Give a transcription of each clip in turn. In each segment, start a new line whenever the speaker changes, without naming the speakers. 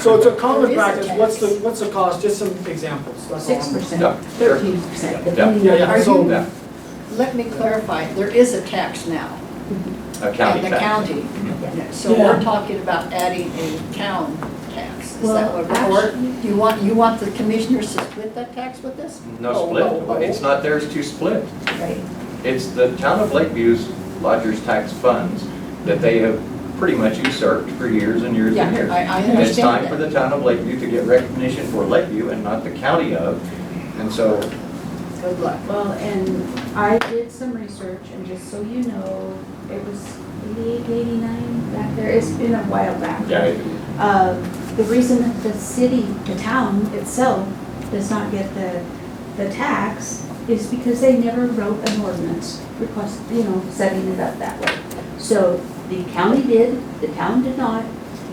So it's a common
There is a
practice, what's the,
tax.
what's the cost, just some examples, that's all.
Six percent,
Yeah, sure.
thirteen percent,
Yeah,
depending
yeah,
on,
yeah,
are
so-
you,
Yeah,
Let me clarify, there is a tax now.
a county
In the
tax.
county. So
Yeah.
we're talking about adding a town tax. Is that
Well,
what, we're- or do you want, you want the commissioners to split that tax with us?
No
Oh, oh, oh.
split, it's not theirs to split.
right?
It's the town of Lakeview's lodgers tax funds that they have pretty much usurped for years and years
Yeah,
and years.
I, I
And it's time for
understand that.
the town of Lakeview to get recognition for Lakeview and not the county of. And so,
Good luck.
Well, and I did some research and just so you know, it was eighty-eight, eighty-nine back there. It's been a while back.
yeah,
Uh, the reason that the city, the town itself does not get the, the tax is because they never wrote an ordinance request, you know, setting it up that way. So the county did, the town did not,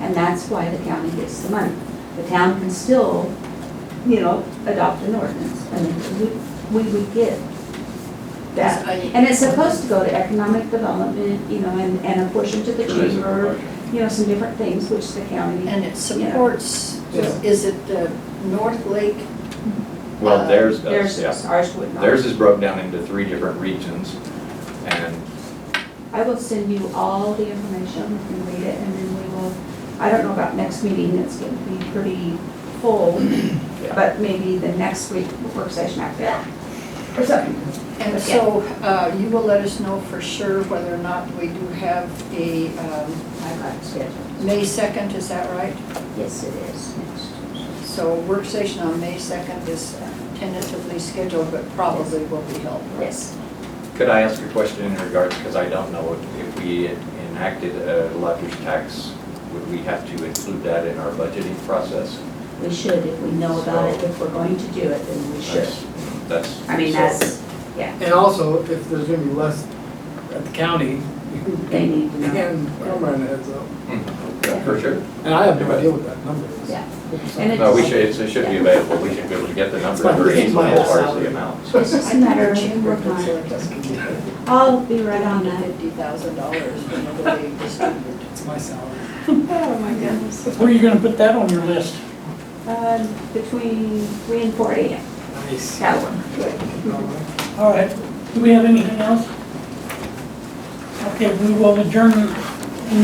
and that's why the county gets the money. The town can still, you know, adopt an ordinance, and we, we would get that.
I-
And it's supposed to go to economic development, you know, and, and a portion to the
tourism.
chamber, you know, some different things, which the county,
And it supports,
Yeah.
is it the North Lake?
Well,
Uh,
theirs
theirs,
does, yeah.
ours would not.
Theirs is broken down into three different regions. And
I will send you all the information, you can read it, and then we will, I don't know about next meeting, it's going to be pretty full,
Yeah.
but maybe the next week, work session after that, or something.
And so uh, you will let us know for sure whether or not we do have a, um,
I've got it scheduled.
May 2nd, is that right?
Yes, it is next Tuesday.
So work session on May 2nd is tentatively scheduled, but probably will be held. right?
Yes.
could I ask a question in regards, because I don't know if- if we enacted a lodgers tax, would we have to include that in our budgeting process?
We should, if we know about it, if we're going to do it, then we should.
That's- That's.
I mean,
so-
that's,
And also, if there's gonna be less at the county,
they need to
you
know.
can, I'm running heads up.
hmm, Yeah, For sure.
And I have no idea what that number is.
Yeah. And
No, we
it's-
should, it's- it should be available. We should be able to get the number
It's my-
very
it's my
easily as
whole
far as
salary.
the amount.
I
It's just a matter of
think
working
Jim
on it.
Brooks let us get
I'll be right on that.
$150,000 whenever they distribute.
It's my salary.
Oh, my goodness.
Where are you gonna put that on your list?
Um, between three and four AM,
Nice.
that one.
All right, do we have anything else? Okay, we will adjourn